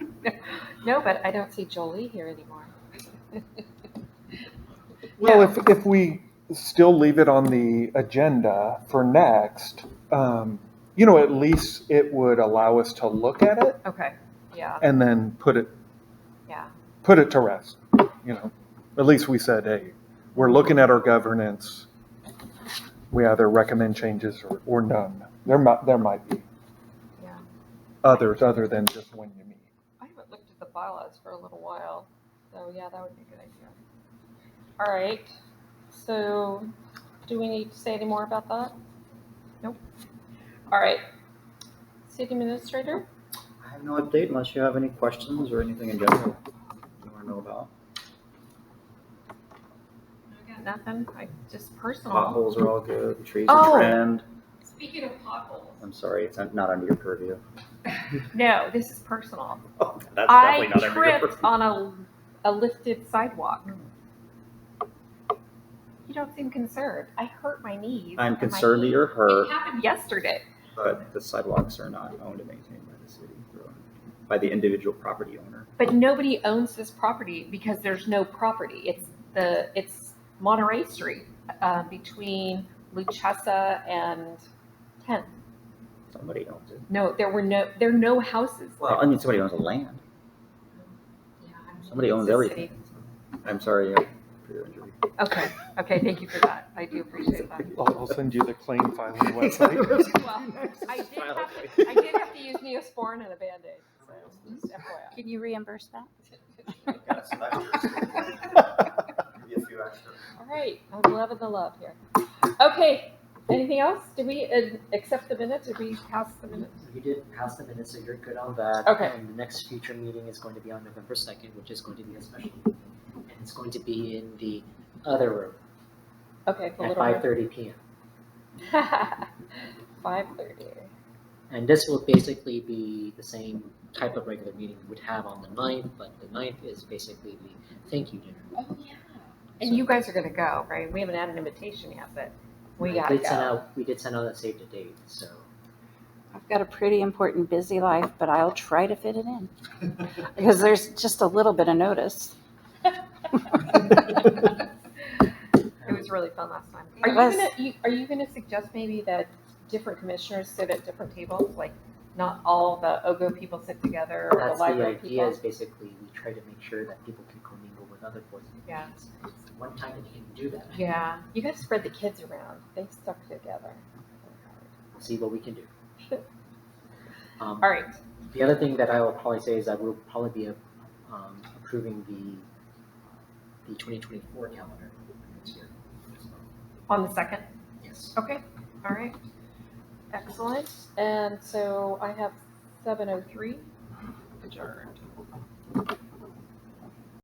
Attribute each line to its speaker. Speaker 1: No, but I don't see Jolie here anymore.
Speaker 2: Well, if, if we still leave it on the agenda for next, um, you know, at least it would allow us to look at it
Speaker 1: Okay, yeah,
Speaker 2: and then put it,
Speaker 1: yeah,
Speaker 2: put it to rest, you know? At least we said, hey, we're looking at our governance. We either recommend changes or, or none. There might, there might be
Speaker 1: yeah.
Speaker 2: others other than just when you meet.
Speaker 1: I haven't looked at the bylaws for a little while, so yeah, that would be a good idea. All right, so do we need to say any more about that? Nope. All right, city administrator?
Speaker 3: I have no update unless you have any questions or anything in general you want to know about.
Speaker 1: I got nothing, I just personal.
Speaker 3: Potholes are all good, the trees
Speaker 1: Oh.
Speaker 3: are trimmed.
Speaker 1: Speaking of potholes.
Speaker 3: I'm sorry, it's not under your purview.
Speaker 1: No, this is personal.
Speaker 3: Oh, That's
Speaker 1: I
Speaker 3: definitely not under your
Speaker 1: tripped
Speaker 3: purview.
Speaker 1: on a, a lifted sidewalk. You don't seem concerned. I hurt my knees.
Speaker 3: I'm
Speaker 1: and my
Speaker 3: concerned that
Speaker 1: knee-
Speaker 3: you're
Speaker 1: It
Speaker 3: hurt,
Speaker 1: happened yesterday.
Speaker 3: but the sidewalks are not owned and maintained by the city. They're owned By the individual property owner.
Speaker 1: But nobody owns this property because there's no property. It's the, it's Monterey Street, uh, between Luchessa and Tenth.
Speaker 3: Somebody owns it.
Speaker 1: No, there were no, there are no houses.
Speaker 3: Well, I mean, somebody owns the land.
Speaker 1: Yeah, I'm-
Speaker 3: Somebody
Speaker 1: it's
Speaker 3: owns
Speaker 1: a
Speaker 3: everything.
Speaker 1: city.
Speaker 3: I'm sorry uh, for your injury.
Speaker 1: Okay, okay, thank you for that. I do appreciate that.
Speaker 2: I'll, I'll send you the claim filing website.
Speaker 1: I did have to, I did have to use Neosporin and a Band-Aid, so just FYI.
Speaker 4: Can you reimburse that?
Speaker 1: All right, I'm loving the love here. Okay, anything else? Did we uh, accept the minutes? Did we pass the minutes?
Speaker 5: You did pass the minutes, so you're good on that.
Speaker 1: Okay.
Speaker 5: And the next future meeting is going to be on November second, which is going to be a special meeting. And it's going to be in the other room
Speaker 1: Okay, the
Speaker 5: at
Speaker 1: little.
Speaker 5: five thirty PM.
Speaker 1: Five thirty.
Speaker 5: And this will basically be the same type of regular meeting we would have on the ninth, but the ninth is basically the thank you dinner.
Speaker 1: Oh, yeah. And you guys are gonna go, right? We haven't had an invitation yet, but we
Speaker 5: I
Speaker 1: gotta
Speaker 5: did send
Speaker 1: go.
Speaker 5: out- We did send out that save the date, so.
Speaker 4: I've got a pretty important busy life, but I'll try to fit it in. Because there's just a little bit of notice.
Speaker 1: It was really fun last time. Are you
Speaker 4: was.
Speaker 1: gonna, you- are you gonna suggest maybe that different commissioners sit at different tables? Like, not all the OGO people sit together or the
Speaker 5: That's the
Speaker 1: library
Speaker 5: idea
Speaker 1: people?
Speaker 5: is basically we try to make sure that people can commingle with other boards and
Speaker 1: Yeah.
Speaker 5: commissions. It's the One time that you can do that,
Speaker 1: Yeah, you gotta spread the kids around. They stuck together.
Speaker 5: We'll see what we can do. Um,
Speaker 1: All right,
Speaker 5: The other thing that I will probably say is that we'll probably be um, approving the, the 2024 calendar next year.
Speaker 1: on the second.
Speaker 5: Yes.
Speaker 1: Okay, all right. Excellent. And so I have seven oh three adjourned.